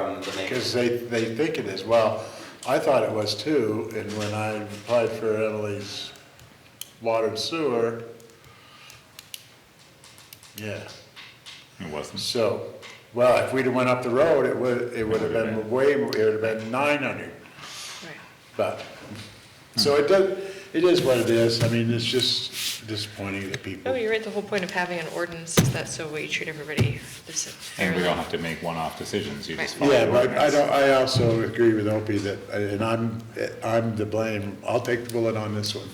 because they, they think it is. Well, I thought it was too, and when I applied for Emily's water and sewer, yeah. It wasn't. So, well, if we'd have went up the road, it would, it would have been way, more- it would have been nine hundred. But, so it does, it is what it is. I mean, it's just disappointing that No, people, Oh, you're right, the whole point of having an ordinance is that so we treat everybody the same. And we don't have to make one-off decisions, you just Right. follow yeah, the but I ordinance. don't, I also agree with Opie that, and I'm, I'm to blame. I'll take the bullet on this one.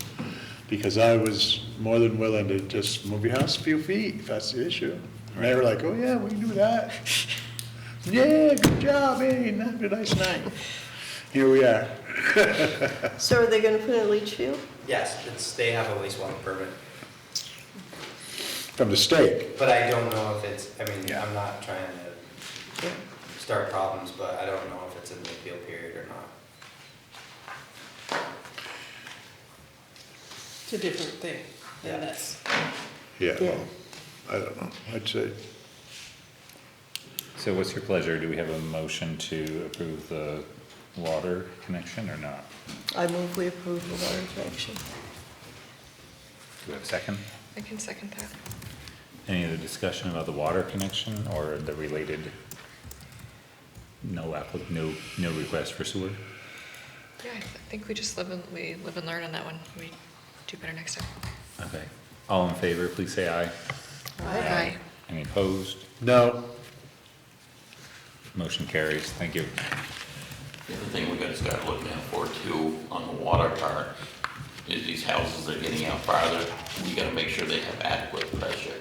Because I was more than willing to just move your house a few feet if that's the issue. And they were like, oh yeah, we can do that. Yeah, good job, hey, have a nice night. Here we are. So are they gonna put in a leach field? Yes, it's, they have a wastewater permit, From the state. but I don't know if it's, I mean, Yeah. I'm not trying to start problems, but I don't know if it's in the appeal period or not. It's a different thing Yeah. than this. Yeah, Yeah. well, I don't know, I'd say, So what's your pleasure? Do we have a motion to approve the water connection or not? I move we approve the water connection. Do we have a second? I can second that. Any other discussion about the water connection or the related? No applic, no, no request for sewer? Yeah, I think we just live and, we live and learn on that one. We do better next time. Okay. All in favor, please say aye. Aye. Any opposed? no, Motion carries. Thank you. The other thing we gotta start looking out for too, on the water part, is these houses that are getting out farther, we gotta make sure they have adequate pressure,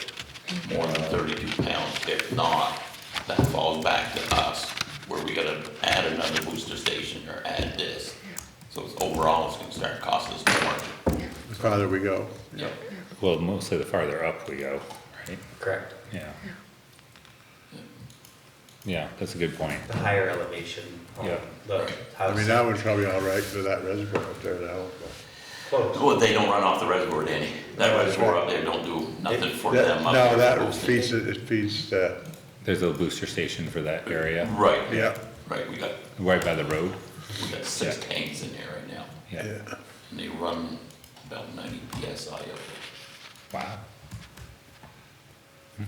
more than thirty-two pounds. If not, that falls back to us, where we gotta add another booster station or add this. So it's overall, it's gonna start costing us more. the farther we go. Yep. Well, mostly the farther up we go, right? Correct. Yeah. Yeah, that's a good point. The higher elevation on Yeah. the I mean, house, that one's probably all right for that reservoir up there, that one. close. Well, they don't run off the reservoir, Danny. That reservoir up there don't do nothing for That- them. up No, there. that feeds, it it feeds, uh, There's a booster station for that area, Right, yeah, right, we got, right by the road. we got six tanks in there right now. Yeah. yeah. And they run about ninety PSI up there. Wow. Hmm,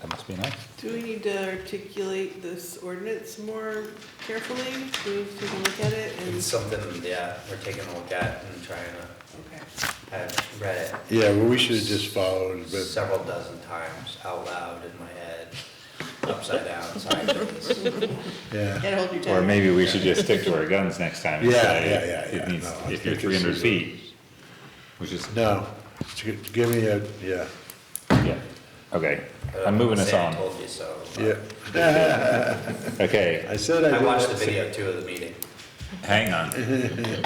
That must be nice. Do we need to articulate this ordinance more carefully? Do we take a look at it It's and, something, yeah, we're taking a look at and trying to, okay. I've read Yeah, well, we should've just Oh, followed, it but, several dozen times out loud in my head, upside down, sideways. yeah, Can't hold you Or down. maybe we should just stick to our guns next time. and Yeah, say yeah, yeah, yeah. It needs, No, I if you're think three this hundred is a- feet, which is, no, It's g- give me a, yeah, yeah, okay, But I'm moving us saying I on. told you so. but- yeah. Okay, I said I I did watched the it. video too of the meeting. Hang on.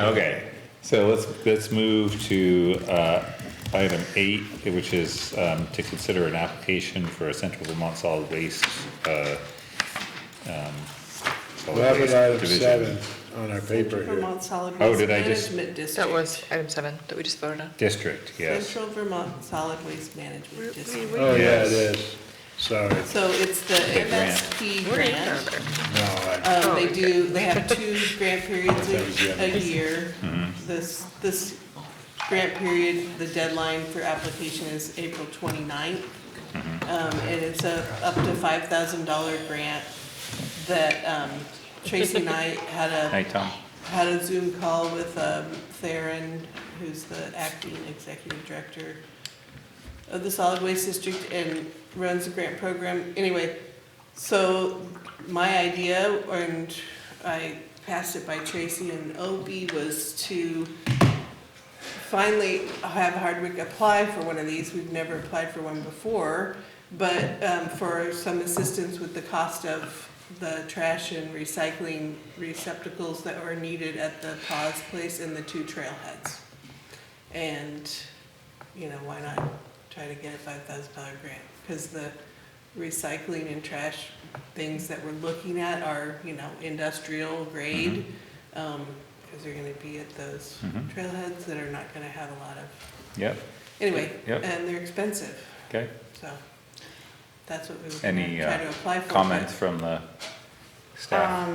Okay, so let's, let's move to, uh, item eight, which is, um, to consider an application for a Central Vermont Solid Waste, uh, um. solid We'll have it waste item division. seven on our paper Central here. Vermont Solid Oh, Waste did I just- Management District. That was item seven that we just voted on. District, yes. Central Vermont Solid Waste Management District. Oh, yeah, Yes. it is, sorry, So it's the The grant. MSP grant. no, I, Um, they do, they have two grant periods That was Mm-hmm. the a, other a year. This, this grant period, the deadline for application is April 29th. Mm-hmm. Um, and it's a up to five thousand dollar grant that, um, Tracy and I had Hi, a, Tom. had a Zoom call with, um, Theron, who's the acting executive director of the solid waste district and runs the grant program. Anyway, so my idea, and I passed it by Tracy and Opie, was to finally have Hardwick apply for one of these. We've never applied for one before, but um, for some assistance with the cost of the trash and recycling receptacles that are needed at the pause place and the two trailheads. And, you know, why not try to get a five thousand dollar grant? Because the recycling and trash things that we're looking at are, you know, industrial grade. Because um, they're gonna be at those Mhm. trailheads that are not gonna have a lot of, Yep, anyway, Yep. and they're expensive, okay. so that's what we were Any, gonna try uh, to apply for. but- Um, Comments from the staff?